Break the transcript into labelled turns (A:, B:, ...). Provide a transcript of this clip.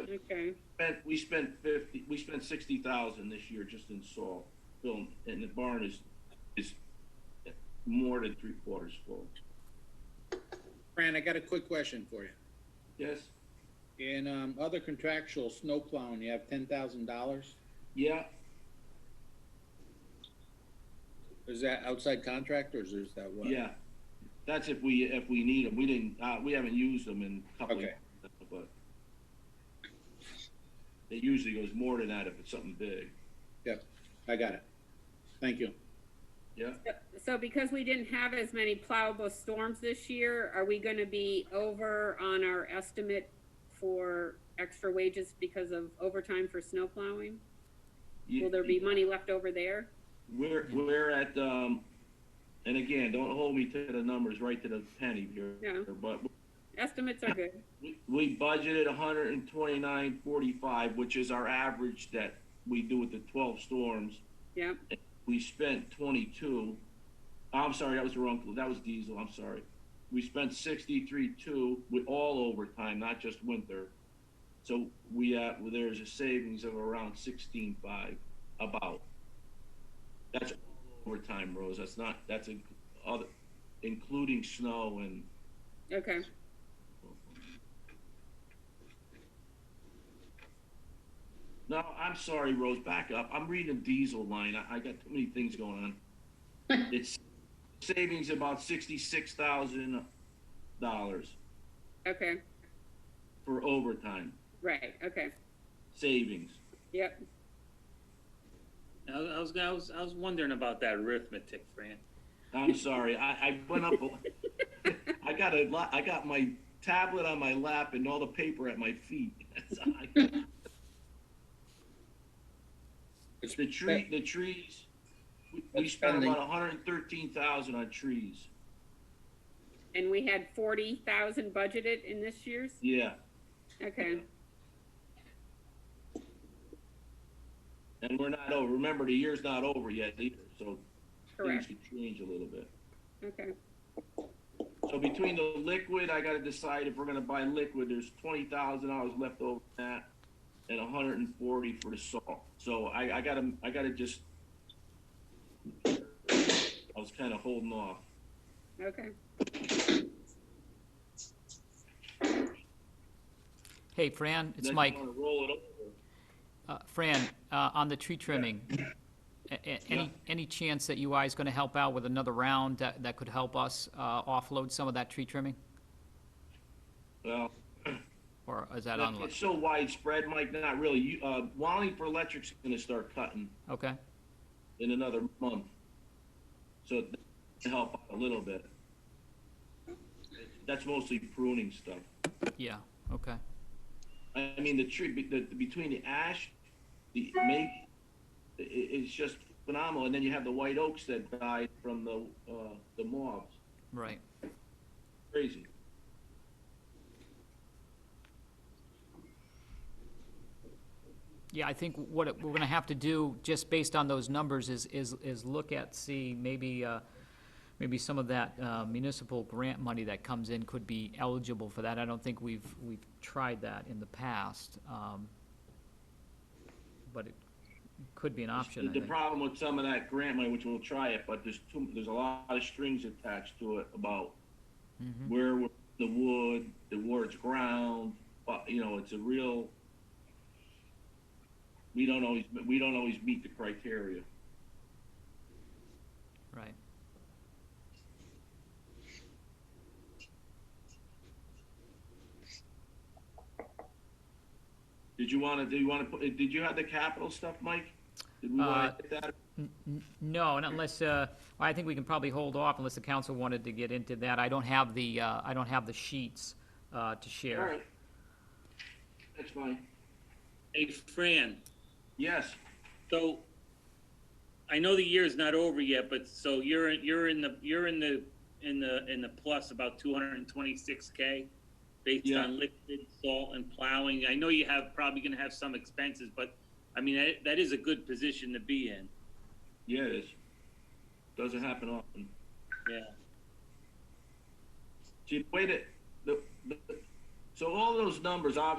A: Okay,
B: spent, we spent fifty, we spent sixty thousand this year just in salt film, and the barn is, is more than three quarters full.
C: Fran, I got a quick question for you.
B: Yes,
C: In, um, other contractual snow plowing, you have ten thousand dollars?
B: yeah,
C: Is that outside contractors or is that what?
B: yeah. That's if we, if we need them. We didn't, uh, we haven't used them in a couple of,
C: Okay.
B: years, but it usually goes more than that if it's something big,
C: Yep, I got it. Thank you.
B: yeah?
A: so because we didn't have as many plowable storms this year, are we gonna be over on our estimate for extra wages because of overtime for snow plowing? Will there be money left over there?
B: We're, we're at, um, and again, don't hold me to the numbers right to the penny
A: Yeah.
B: here, but
A: Estimates are good.
B: We- We budgeted hundred and twenty-nine forty-five, which is our average that we do with the twelve storms.
A: Yep,
B: We spent twenty-two. I'm sorry, that was the wrong, that was diesel, I'm sorry. We spent sixty-three two with all overtime, not just winter. So we, uh, well, there's a savings of around sixteen five, about. That's all overtime, Rose, that's not, that's in, other, including snow and.
A: okay.
B: No, I'm sorry, Rose. Back up. I'm reading the diesel line. I, I got too many things going on. it's savings about sixty-six thousand dollars
A: Okay,
B: for overtime
A: right, okay,
B: savings.
A: yep.
D: I was- I was, I was, I was wondering about that arithmetic, Fran.
B: I'm sorry. I, I went up. a- I got a lot. I got my tablet on my lap and all the paper at my feet. That's- I-
C: It's-
B: the tree. The trees. We, we
C: That's
B: spent
C: spending.
B: about one hundred thirteen thousand on trees.
A: And we had forty thousand budgeted in this year's?
B: Yeah.
A: Okay,
B: And we're not over. Remember, the year's not over yet either, so things
A: correct,
B: could change a little bit.
A: okay,
B: So between the liquid, I gotta decide if we're gonna buy liquid, there's twenty thousand dollars left over in that and a hundred and forty for the salt. So I, I gotta, I gotta just I was kinda holding off.
A: okay.
E: Hey, Fran, it's
B: Unless you
E: Mike.
B: wanna Roll it over.
E: Uh, Fran, uh, on the tree trimming, a- a-
B: Yeah.
E: any, any chance that UI is going to help out with another round that, that could help us uh, offload some of that tree trimming?
B: Well,
E: Or is that on?
B: it's so widespread, Mike, not really. You, uh, Wallingford Electric's gonna start cutting
E: Okay,
B: in another month. So it can help out a little bit. That's mostly pruning stuff.
E: yeah, okay.
B: I I mean, the tree, be- the, between the ash, the make, i i- it's just phenomenal. And then you have the white oaks that died from the, uh, the moths.
E: Right.
B: Crazy.
E: Yeah, I think what it- we're going to have to do, just based on those numbers, is, is, is look at, see, maybe, uh, maybe some of that uh, municipal grant money that comes in could be eligible for that. I don't think we've, we've tried that in the past. um, But it could be an option, I
B: The
E: think.
B: problem with some of that grant money, which we'll try it, but there's too, there's a lot of strings attached to it about
E: Mm-hmm.
B: where we're- the wood, the where it's ground, but, you know, it's a real, we don't always, we don't always meet the criteria.
E: Right.
B: Did you wanna, do you wanna, put? did you have the capital stuff, Mike? Did we
E: Uh,
B: wanna hit that?
E: No, and unless, uh, well, I think we can probably hold off unless the council wanted to get into that. I don't have the, uh, I don't have the sheets uh, to share.
B: All right. That's fine.
D: Hey, Fran,
B: Yes,
D: so I know the year is not over yet, but so you're, in- you're in the, you're in the, in the, in the plus about two hundred and twenty-six K based
B: Yeah.
D: on lifted salt and plowing. I know you have, probably gonna have some expenses, but I mean, that, that is a good position to be in.
B: yeah, it is. Doesn't happen often.
D: Yeah.
B: See, the way that, the, the, so all those numbers, obviously,